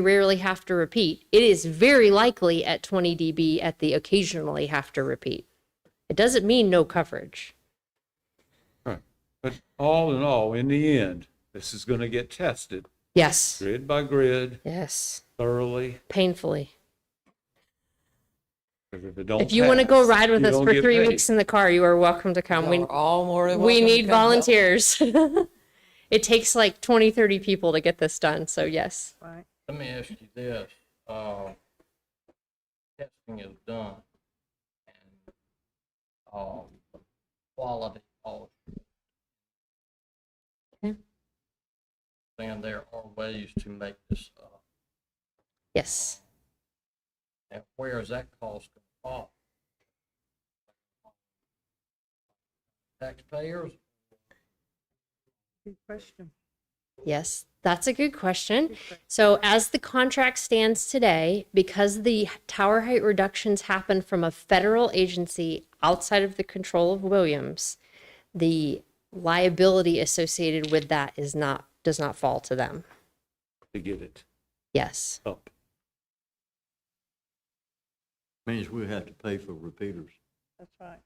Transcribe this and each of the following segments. rarely have to repeat. It is very likely at 20 dB at the occasionally have to repeat. It doesn't mean no coverage. Right. But all in all, in the end, this is going to get tested Yes. grid by grid Yes. thoroughly. Painfully. 'cause If it don't If you want to go pass, ride with you us don't for get three paid. weeks in the car, you are welcome to come. We're all more We, than we welcome to need come help. volunteers. it takes like 20, 30 people to get this done. So, yes. Let me ask you this, uh, testing is done and, um, quality also. Okay. And there are ways to make this, uh, Yes. and where is that cost gonna fall? Taxpayers? Good question. Yes, that's a good question. So as the contract stands today, because the tower height reductions happen from a federal agency outside of the control of Williams, the liability associated with that is not, does not fall to them. To get it Yes, up. Means we have to pay for repeaters. That's right.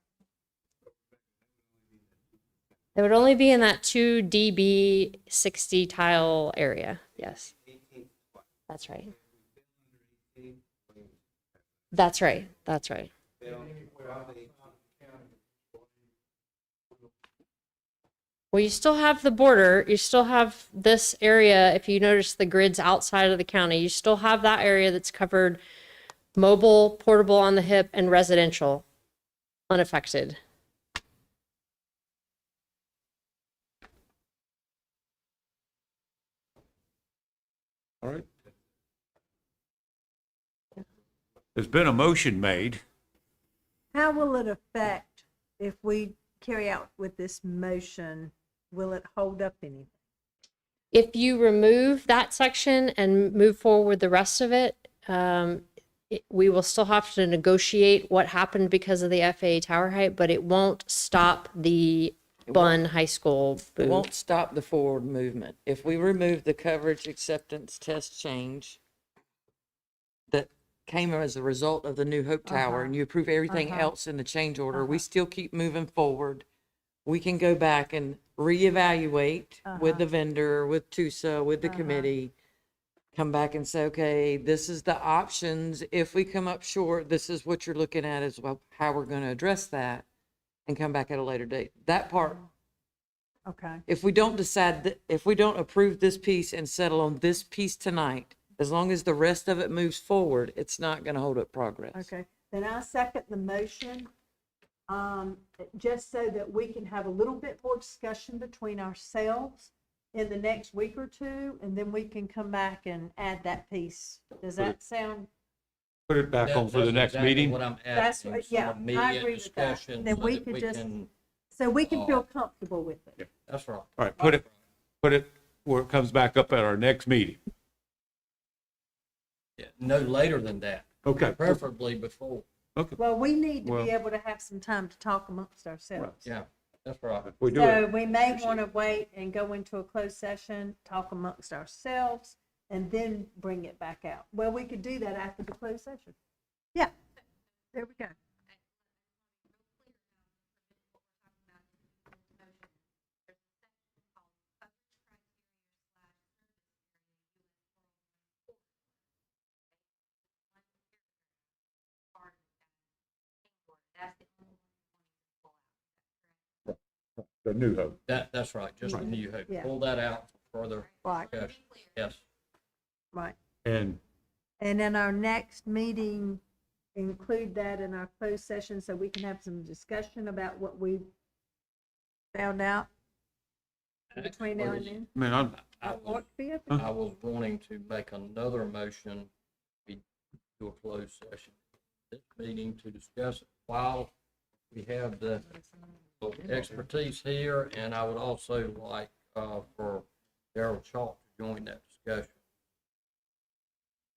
it would only be in that two dB sixty tile area. Yes. That's right. That's right. That's right. Well, you still have the border, you still have this area, if you notice the grids outside of the county, you still have that area that's covered mobile, portable on the hip, and residential, unaffected. All right. There's been a motion made. How will it affect if we carry out with this motion? Will it hold up anything? If you remove that section and move forward the rest of it, um, it- we will still have to negotiate what happened because of the FAA tower height, but it won't stop the Bun High School It booth. won't stop the forward movement. If we remove the coverage acceptance test change that came as a result of the new Hope Tower and you approve everything else in the change order, we still keep moving forward. We can go back and reevaluate with the vendor, with TUSA, with the committee. Come back and say, okay, this is the options. If we come up short, this is what you're looking at as well, how we're going to address that and come back at a later date. That part Oh, Okay. if we don't decide, th- if we don't approve this piece and settle on this piece tonight, as long as the rest of it moves forward, it's not going to hold up progress. Okay, then I second the motion, um, just so that we can have a little bit more discussion between ourselves in the next week or two, and then we can come back and add that piece. Does that sound? Put it back on That- for the that's next exactly meeting. What I'm That's asking, what- yeah, I some immediate agree with that. discussion Then so we that could we just- can, So we can feel comfortable with it. that's right. All right, put it, put it where it comes back up at our next meeting. Yeah, No later than that, Okay. preferably before. Okay. Well, we need to Well- be able to have some time to talk amongst ourselves. Yeah, that's right. We do So it. we may want to wait and go into a closed session, talk amongst ourselves, and then bring it back out. Well, we could do that after the closed session. Yeah, there we go. The new hope. That, that's right, just the new hope. Yeah. Pull that out for further Right, discussion. Yes, right. And And in our next meeting, include that in our closed session so we can have some discussion about what we found out between now and then. man, I'm, I Or was, it could be open. I was wanting to make another motion we do a closed session, this meeting to discuss it while we have the expertise here. And I would also like, uh, for Daryl Chalk to join that discussion.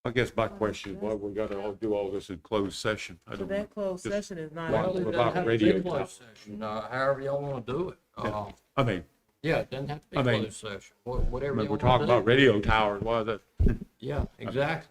I guess my question is why we gotta all do all this in closed session. I don't know. closed Just- session is not. Well, Well, it without doesn't have to be radio closed session, uh, However y'all want to do it. Yeah. Uh, I mean, Yeah, it doesn't have to be I mean- closed session, wha- whatever. But you we're wanna talking about do. radio towers, why is that? Yeah, exactly.